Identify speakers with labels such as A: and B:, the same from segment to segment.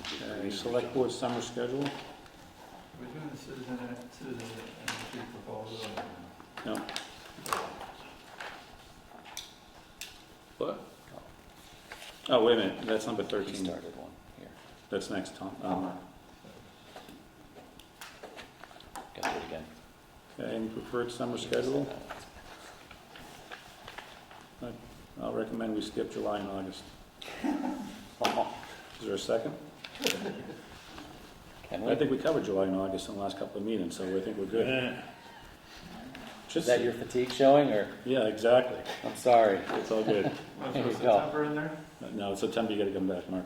A: Uh, Select Board Summer Schedule?
B: We're doing the citizen, citizen energy proposal.
A: No. What? Oh, wait a minute, that's number
C: He
A: thirteen.
C: started one here.
A: That's next, Tom. Um,
C: Got it again.
A: okay, Any preferred summer schedule? I'll recommend we skip July and August. Is there a second?
C: Can
A: I
C: we?
A: think we covered July and August in the last couple of meetings, so I think we're good.
C: Is that your fatigue showing, or,
A: Yeah, exactly.
C: I'm sorry,
A: It's all good.
B: Want to
C: There
B: throw
C: you go.
B: September in there?
A: Now, September, you gotta come back, Mark.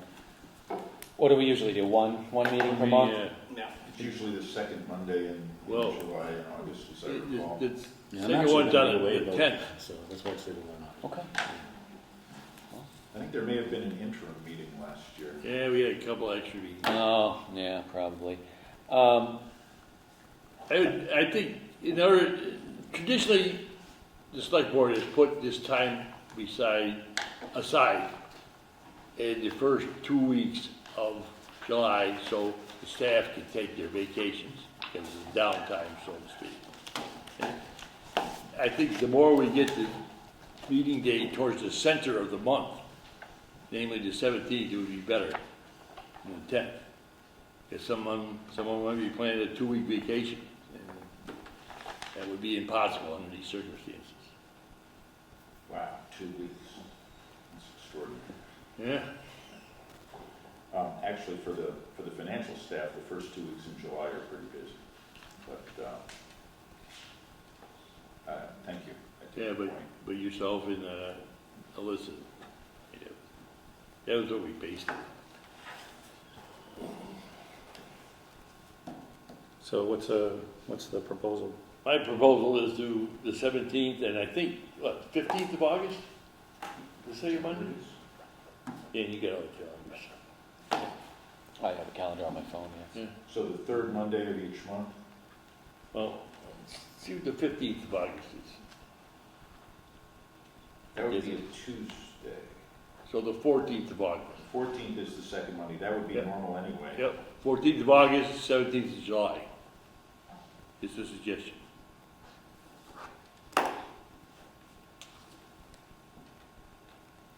C: what do we usually do, one, one meeting per month?
D: Yeah,
E: It's usually the second Monday in in
D: Well,
E: July and August, as I recall.
D: it- it's,
A: Yeah, I'm
D: second
A: actually
D: one
A: gonna
D: done
A: be away
D: at the
A: about-
D: tenth.
A: So that's why I said we're not.
C: Okay,
E: I think there may have been an interim meeting last year.
D: Yeah, we had a couple extra meetings.
C: oh, yeah, probably. Um,
D: I would, I think, in order, traditionally, the select board has put this time beside, aside in the first two weeks of July, so the staff can take their vacations, because it's downtime, so to speak. I think the more we get the meeting day towards the center of the month, namely the seventeenth, it would be better than the tenth. If someone, someone might be planning a two-week vacation, and that would be impossible under these circumstances.
E: Wow, two weeks. That's extraordinary.
D: Yeah.
E: Um, actually, for the, for the financial staff, the first two weeks in July are pretty busy. But, uh, uh, thank you. I take
D: Yeah,
E: your
D: but,
E: point.
D: but yourself and, uh, Alyssa, yeah. that was what we based it.
A: So what's, uh, what's the proposal?
D: My proposal is to the seventeenth, and I think, what, fifteenth of August? The second Monday? Yeah, you got all the calendars.
C: I have a calendar on my phone, yes.
E: So the third Monday of each month?
D: Well, see what the fifteenth of August is,
E: That would be
D: Yes.
E: a Tuesday.
D: so the fourteenth of August.
E: Fourteenth is the second Monday. That would be
D: Yeah.
E: normal anyway.
D: Yep, fourteenth of August, seventeenth of July. It's a suggestion.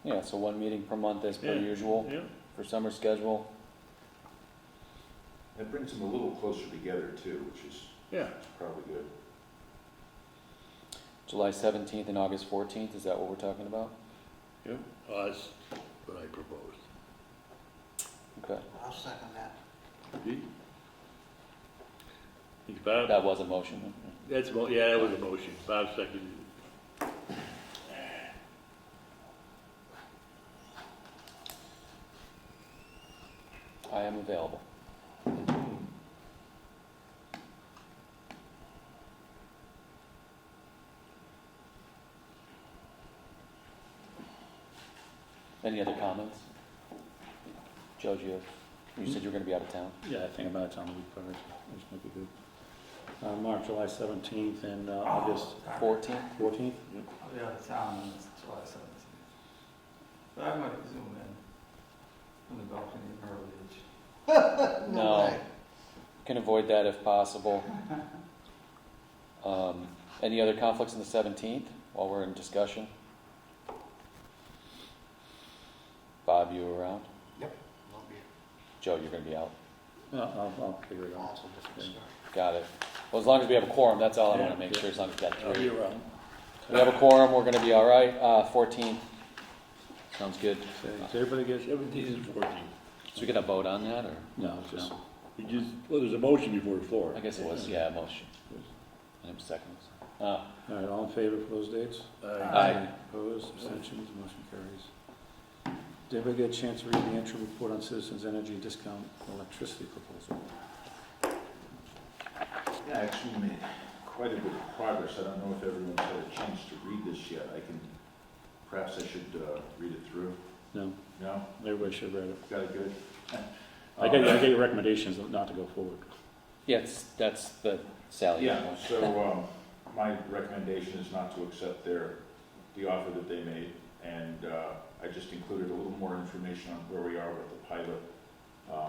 C: Yeah, so one meeting per month as per
D: Yeah.
C: usual
D: Yeah.
C: for summer schedule.
E: That brings them a little closer together too, which is
D: Yeah.
E: probably good.
C: July seventeenth and August fourteenth, is that what we're talking about?
D: Yep, Well, that's what I proposed.
C: Okay,
F: I'll second that.
D: See? Think about it.
C: that was a motion.
D: That's, mo- yeah, that was a motion, Bob seconded it.
C: I am available. Any other comments? Joe, you, you said you were gonna be out of town.
A: Yeah, I think about it, Tom, we covered, it. That's gonna be good. Uh, Mark, July seventeenth and, uh, August
C: Fourteenth?
A: fourteenth?
B: I'll be out of town on this July seventeenth. But I might zoom in from the balcony in Myrtle Beach.
C: No. Can avoid that if possible. Um, any other conflicts on the seventeenth while we're in discussion? Bob, you around?
F: Won't be
C: Joe, you're gonna be out.
A: Yeah, I'll, I'll figure it out.
F: also different story.
C: Got it. Well, as long as we have a quorum, that's all I wanna
A: Yeah,
C: make
A: yeah.
C: sure, as long as we got
D: I'll be
C: three.
D: around.
C: We have a quorum, we're gonna be all right. Uh, fourteenth. Sounds good.
A: So, Does everybody get,
D: Seventeenth and fourteenth.
C: So we gonna vote on that, or?
A: no, just,
D: You just, well, there's a motion before the floor.
C: I guess it was, yeah, a motion. And it was seconds. Uh,
A: all right, all in favor for those dates?
D: Uh,
C: Aye.
A: Opposed, abstentions, motion carries. Did everybody get a chance to read the interim report on Citizens Energy Discount Electricity Proposal?
E: Yeah, actually we made quite a bit of progress. I don't know if everyone's had a chance to read this yet. I can, perhaps I should uh, read it through.
A: No,
E: No?
A: everybody should have read it.
E: Got it good?
A: I get, I get your recommendations not to go forward.
C: yes, that's the Sally.
E: Uh, Yeah, so um, my recommendation is not to accept their, the offer that they made. And uh, I just included a little more information on where we are with the pilot